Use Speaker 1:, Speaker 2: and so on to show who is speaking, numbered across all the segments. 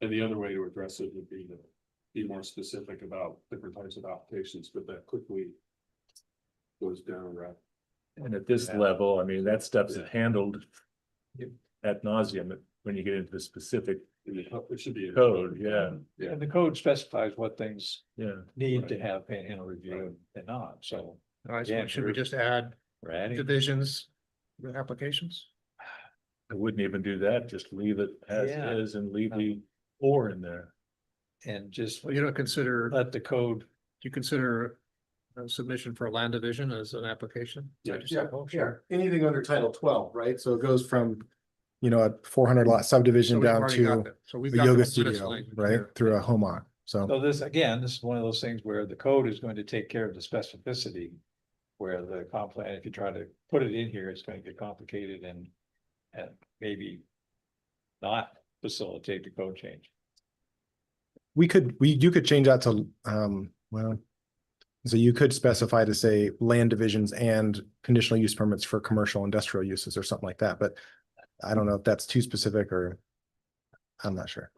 Speaker 1: And the other way to address it would be to be more specific about different types of applications, but that quickly goes down a route.
Speaker 2: And at this
Speaker 1: Yeah.
Speaker 2: level, I mean, that stuff's
Speaker 1: Yeah.
Speaker 2: handled
Speaker 1: Yep.
Speaker 2: ad nauseum when you get into the specific
Speaker 1: And it it should be.
Speaker 2: code, yeah,
Speaker 1: Yeah.
Speaker 3: And the code specifies what things
Speaker 4: Mm-hmm.
Speaker 2: yeah.
Speaker 3: need to have panhandle review and not, so.
Speaker 5: All right,
Speaker 3: Yeah,
Speaker 5: so should we
Speaker 3: sure.
Speaker 5: just add
Speaker 3: We're adding.
Speaker 5: divisions with applications?
Speaker 2: I wouldn't even do that, just leave it as
Speaker 3: Yeah.
Speaker 2: is and leave
Speaker 4: Uh,
Speaker 3: No.
Speaker 2: the or in there.
Speaker 3: And just
Speaker 5: Well, you don't consider, do
Speaker 3: let the code,
Speaker 5: you consider a submission for a land division as an application? Is that what you said, Paul?
Speaker 4: Sure, anything under title twelve, right? So it goes from, you know, a four hundred lot
Speaker 5: So
Speaker 4: subdivision
Speaker 5: we've
Speaker 4: down
Speaker 5: already got
Speaker 4: to
Speaker 5: that. So we've
Speaker 4: a
Speaker 5: got the
Speaker 4: yoga
Speaker 5: witness
Speaker 4: studio,
Speaker 5: language
Speaker 4: right?
Speaker 5: there.
Speaker 4: Through a home lot, so.
Speaker 3: so this, again, this is one of those things where the code is going to take care of the specificity. Where the comp plan, if you try to put it in here, it's going to get complicated and, and maybe. Not facilitate the code change.
Speaker 4: We could, we, you could change that to, um, well. So you could specify to say land divisions and conditional use permits for commercial industrial uses or something like that, but. I don't know if that's too specific or. I'm not sure.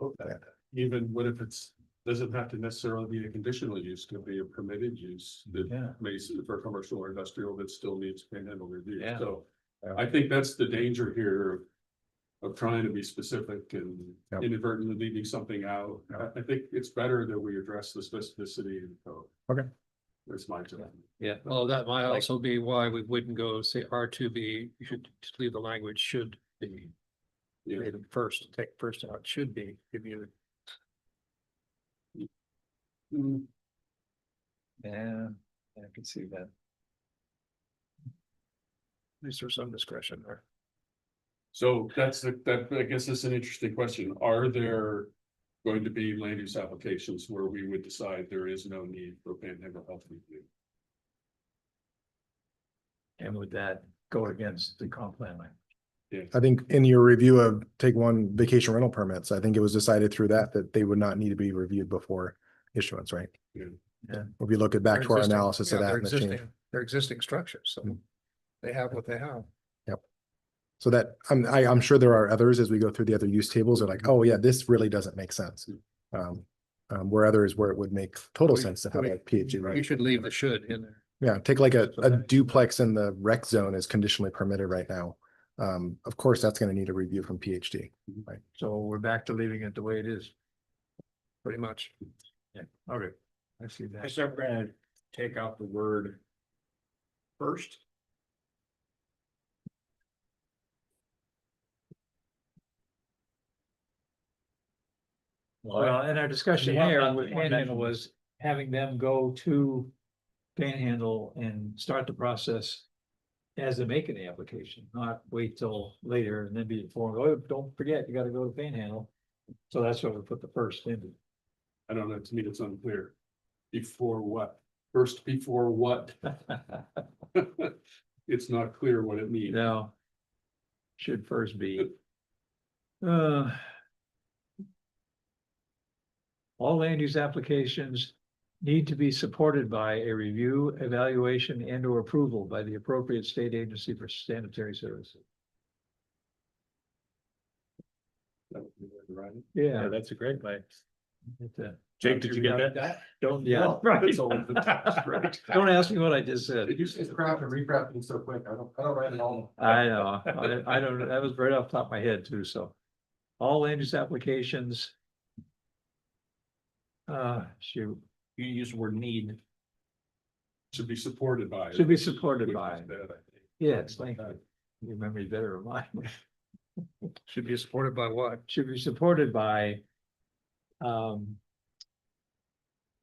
Speaker 1: Even what if it's, doesn't have to necessarily be a conditional use, could be a permitted use that
Speaker 3: Yeah.
Speaker 1: may s- for commercial or industrial that still needs panhandle review.
Speaker 3: Yeah.
Speaker 1: So
Speaker 4: Yeah.
Speaker 1: I think that's the danger here of. Of trying to be specific and
Speaker 4: Yep.
Speaker 1: inadvertently leaving something out. I, I think it's better that we address the specificity in the code.
Speaker 4: Okay.
Speaker 1: That's my take.
Speaker 3: Yeah.
Speaker 5: Well, that might
Speaker 3: Like-
Speaker 5: also be why we wouldn't go say R two B, you should just leave the language should be.
Speaker 1: Yeah.
Speaker 5: Read them first, take first out, should be, give you,
Speaker 6: Mm-hmm.
Speaker 1: Mm,
Speaker 3: Yeah, I can see that.
Speaker 5: at least there's some discretion there.
Speaker 1: So that's, the- that, I guess that's an interesting question. Are there going to be land use applications where we would decide there is no need for panhandle health review?
Speaker 3: And would that go against the comp plan? language?
Speaker 4: I think in your review of take one vacation rental permits, I think it was decided through that, that they would not need to be reviewed before issuance, right?
Speaker 1: Yeah.
Speaker 3: Yeah.
Speaker 4: If you look at back
Speaker 5: They're
Speaker 4: to our
Speaker 5: existing-
Speaker 4: analysis of
Speaker 5: yeah,
Speaker 4: that.
Speaker 5: they're
Speaker 4: and the change.
Speaker 5: existing- They're existing structures, so
Speaker 4: Mm.
Speaker 5: they have what they have.
Speaker 4: So that, I'm, I, I'm sure there are others as we go through the other use tables are like, oh yeah, this really doesn't make sense. Um, um, where others where it would make total
Speaker 5: We-
Speaker 4: sense to have
Speaker 5: we-
Speaker 4: a PhD,
Speaker 3: Mm-hmm.
Speaker 5: You
Speaker 4: right?
Speaker 5: should leave the should in there.
Speaker 4: Yeah, take like a, a
Speaker 5: Okay.
Speaker 4: duplex in the rec zone is conditionally permitted right now. Um, of course, that's gonna need a review from PhD.
Speaker 5: So we're back to leaving it the way it is. Pretty much.
Speaker 3: Yeah.
Speaker 5: Okay, I see that.
Speaker 6: Except we're gonna take out the word first.
Speaker 3: Well,
Speaker 6: in our discussion
Speaker 3: here with Panhandle was having them go to Panhandle and start the process as they make the application, not wait till later and then be informed, oh, don't forget, you gotta go to Panhandle. So that's why we put the first in.
Speaker 1: I don't know, to me, it's unclear. Before what? First, before what? It's not clear what it means.
Speaker 3: No. Should first be. Uh. All land use applications need to be supported by a review, evaluation and or approval by the appropriate state agency for sanitary services.
Speaker 1: That would be the right-
Speaker 2: Yeah,
Speaker 3: Yeah.
Speaker 2: that's a great way.
Speaker 3: it's a-
Speaker 2: Jake, did you get that?
Speaker 3: Don't, yeah,
Speaker 1: That's all of the text,
Speaker 3: right.
Speaker 1: right?
Speaker 3: Don't ask me what I just said.
Speaker 1: just is crap and recrafting so quick. I don't, I don't write it all.
Speaker 3: I know, I, I don't, that was right off the top of my head too, so. All land use applications. Uh, shoot.
Speaker 6: You use the word need.
Speaker 1: Should be supported by.
Speaker 3: Should be supported
Speaker 1: Which
Speaker 3: by.
Speaker 1: is bad, I think.
Speaker 3: Yeah, it's like, your memory's better than mine.
Speaker 5: Should be supported by what?
Speaker 3: Should be supported by um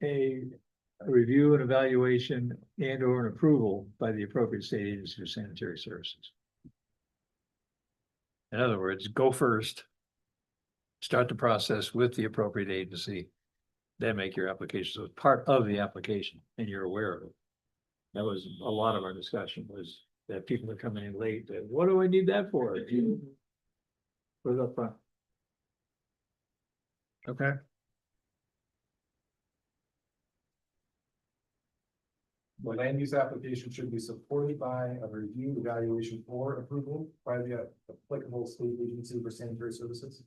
Speaker 3: a a review and evaluation and or an approval by the appropriate state agency for sanitary services. In other words, go first. Start the process with the appropriate agency. Then make your application. So it's part of the application and you're aware of it. That was a lot of our discussion was that people are coming in late. that, What do I need that for? Put it up front.
Speaker 5: Okay.
Speaker 4: The land use application should be supported by a review, evaluation, or approval by the applicable state agency for sanitary services.